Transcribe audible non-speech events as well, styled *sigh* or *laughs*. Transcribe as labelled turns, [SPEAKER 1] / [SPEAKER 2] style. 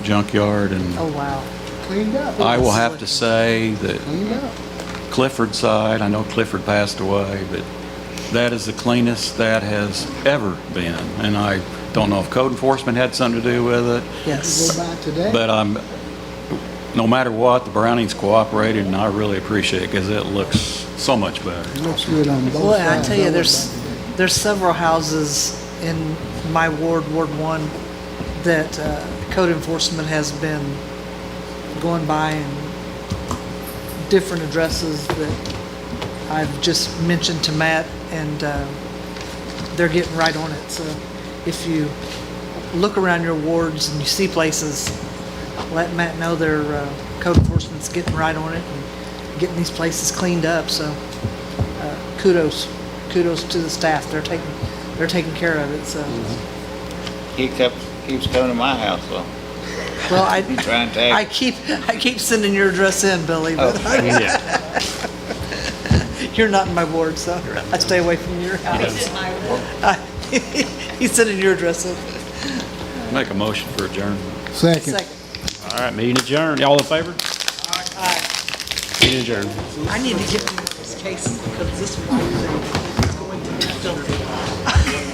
[SPEAKER 1] junkyard, and
[SPEAKER 2] Oh, wow.
[SPEAKER 3] cleaned up.
[SPEAKER 1] I will have to say that
[SPEAKER 3] Cleaned up.
[SPEAKER 1] Clifford side, I know Clifford passed away, but that is the cleanest that has ever been. And I don't know if code enforcement had something to do with it,
[SPEAKER 3] Go
[SPEAKER 2] Yes.
[SPEAKER 3] by today.
[SPEAKER 1] but I'm, no matter what, the Brownings cooperated, and I really appreciate it, because it looks so much better.
[SPEAKER 3] Looks good on both sides.
[SPEAKER 2] Boy, I tell you,
[SPEAKER 3] don't
[SPEAKER 2] there's,
[SPEAKER 3] it?
[SPEAKER 2] there's several houses in my ward, Ward One, that uh, code enforcement has been going by and different addresses that I've just mentioned to Matt, and uh, they're getting right on it. So if you look around your wards and you see places, let Matt know their uh, code enforcement's getting right on it and getting these places cleaned up, so kudos, kudos to the staff. They're taking, they're taking care of it, so.
[SPEAKER 4] He kept, keeps coming to my house, though.
[SPEAKER 2] Well, I,
[SPEAKER 4] Trying to
[SPEAKER 2] I
[SPEAKER 4] act.
[SPEAKER 2] keep, I keep sending your address in, Billy, but
[SPEAKER 4] Oh,
[SPEAKER 2] *laughs* you're not in my ward, so I stay away from your house. *laughs* He's sending your address in.
[SPEAKER 1] Make a motion for adjournment.
[SPEAKER 3] Second.
[SPEAKER 2] Second.
[SPEAKER 5] All right, meeting adjourned. Y'all in favor? Meeting adjourned.
[SPEAKER 2] I need to get this case, because this one is going to be done.